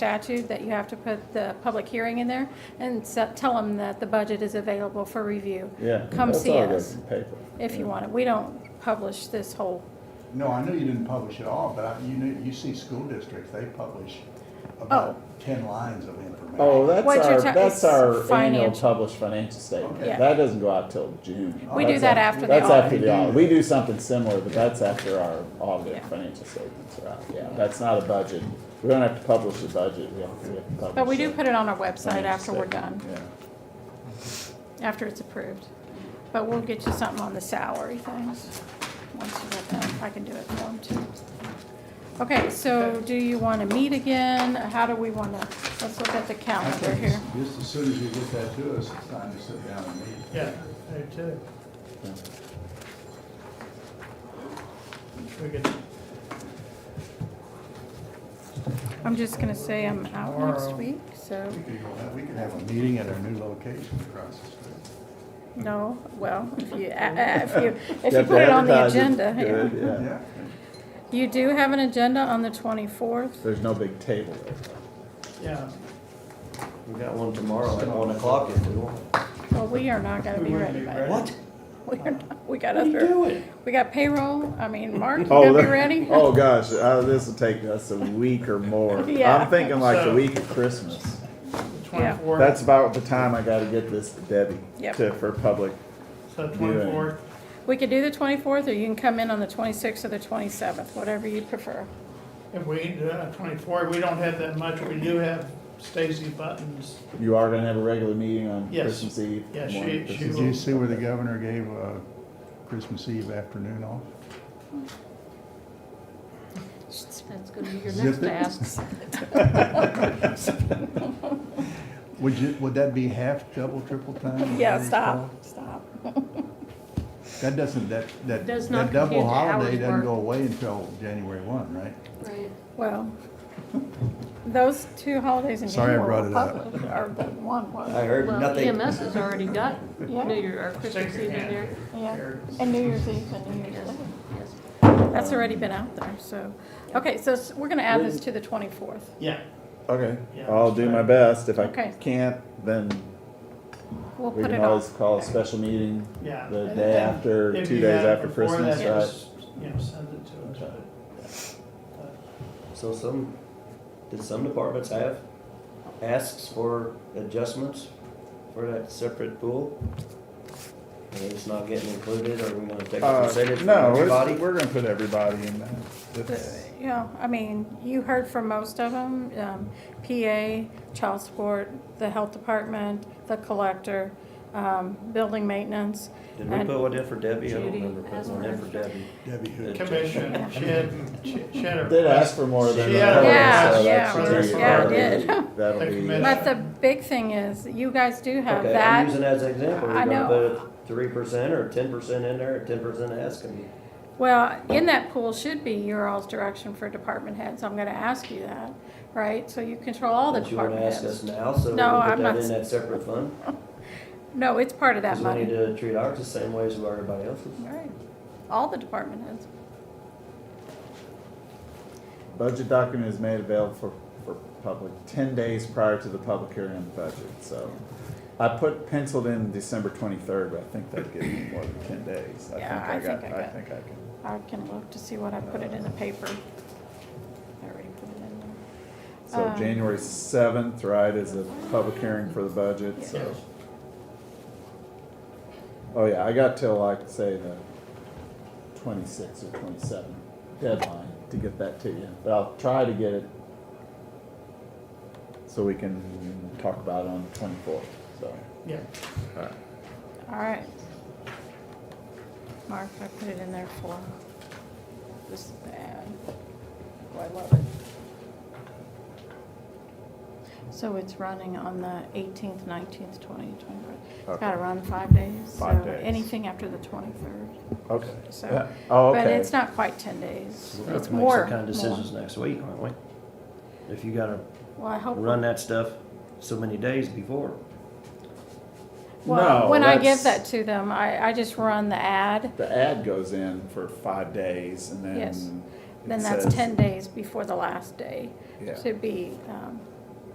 statute that you have to put the public hearing in there and se- tell them that the budget is available for review. Yeah. Come that's see all good us in Paper. if you want it. We don't publish this whole, No, I know you didn't publish it all, but I- you know, you see school districts, they publish about Oh. ten lines of information. Oh, that's What you're our, ta- that's it's our annual financial. published financial statement. Okay. Yeah. That doesn't go out till June. We do That's that a- after the That's audit. after the audit. We do something similar, but that's after our audit Yeah. financial statements are out. Yeah, that's not a budget. We don't have to publish the budget. We have to we have to publish. but we do the put it on our website financial after we're statement. done, Yeah. after it's approved. But we'll get you something on the salary things, once you get that, if I can do it for them too. Okay, so do you want to meet again? How do we want to, let's look at the I calendar think here. Just as soon as you get that to us, it's time to sit down and meet. Yeah, I do too. We could, I'm just gonna say I'm out next Tomorrow. week, so, We could go have- We could have a meeting at our new location across the street. no, well, if you, uh, uh, if you, if You you have to put it on the advertise it. agenda. Good, yeah. yeah. Yeah, You do have an agenda on the twenty-fourth? There's no big table there. yeah, We got one tomorrow at one o'clock if we want. Well, we are not gonna be ready by then. What? We are not, we got What are you other, doing? we got payroll, I mean, Mark, you Oh, gonna be that- ready? Oh, gosh, uh, this'll take us a week or more. Yeah. I'm thinking like the So- week of Christmas. twenty-fourth, That's about the time I gotta get this to Debbie. Yep. To, for public. so twenty-fourth, We could do the twenty-fourth, or you can come in on the twenty-sixth or the twenty-seventh, whatever you prefer. if we, uh, twenty-four, we don't have that much, we do have Stacy Buttons. You are gonna have a regular meeting on Yes. Christmas Eve? Yeah, she- morning, she Christmas did will- you see where the governor gave uh, Christmas Eve afternoon off? That's gonna be your Zip next it. task. Would you, would that be half, double, triple time? whatever Yeah, it's stop, called? stop. That doesn't, that, that, Does not that double compute the hours holiday doesn't worked. go away until January one, right? Right. Well, those two holidays in Sorry I January brought were it up. public, or the one was. I heard Well, E nothing. EMS is already done. Yeah. New Year, or Christmas Shake your Eve in hand. there. Yeah, There. and New Year's Eve and New Year's Yes, Day. yes. That's already been out there, so, okay, so s- we're gonna add this to the twenty-fourth. Yeah, Okay, Yeah, I'll do my best. If I Okay. can't, then We'll we put can it always off. call a special meeting yeah. the And- day and after, if two you days have after before that, Christmas, right? just, You know, send it to us, but- but. So some, did some departments have asks for adjustments for that separate pool? And it's not getting included, or we gonna take a Uh, percentage from no, everybody? it's- we're gonna put everybody in that. It's- Yeah, I mean, you heard from most of them, um, PA, child support, the health department, the collector, um, building maintenance. Did we and- put one in for Debbie? I don't Judy, remember putting one in for Asperger. Debbie. Debbie Hood. Commission, she had, she she had her. Did ask for more than. She that, had a- so Yeah, that yeah, should yeah, be- yeah, I that'll be- did. That'll The be. commission. But the big thing is, you guys do have Okay, I'm using that, that as an example. We're I gonna know. put three percent or ten percent in there, ten percent asking. well, in that pool should be your all's direction for department heads, I'm gonna ask you that, right? So you control all the But you wanna department ask us heads. now, so we No, can I'm put not that s- in that separate fund? No, it's part of that Because we need money. to treat ours the same way as we are everybody else's. Right, all the department heads. Budget document is made available for, for public ten days prior to the public hearing on the budget, so. I put penciled in December twenty-third, but I think that'd give me more than ten days. I Yeah, I think I got, think I I got- think I can. I can look to see what I put it in the paper. I already put it in there. So Um, January seventh, right, is the public hearing for the budget, so. Oh, yeah, I got till like, say, the twenty-sixth or twenty-seventh deadline to get that to you. But I'll try to get it so we can talk about it on the twenty-fourth, so. Yeah, All right. Mark, I put it in there for, this is bad. Oh, I love it. So it's running on the eighteenth, nineteenth, twentieth, twenty-first. It's Okay. gotta run five days. Five so days. Anything after the twenty-third, Okay. so. Oh, okay. But it's not quite ten days. We're gonna It's have to make more. some kind of more. decisions next week, aren't we? If you gotta Well, I hope. run that stuff so many days before. Well, No, when I give that that's- to them, I, I just run the ad. The ad goes in for five days and Yes. then Then that's says- ten days before the last day Yeah. to be, um,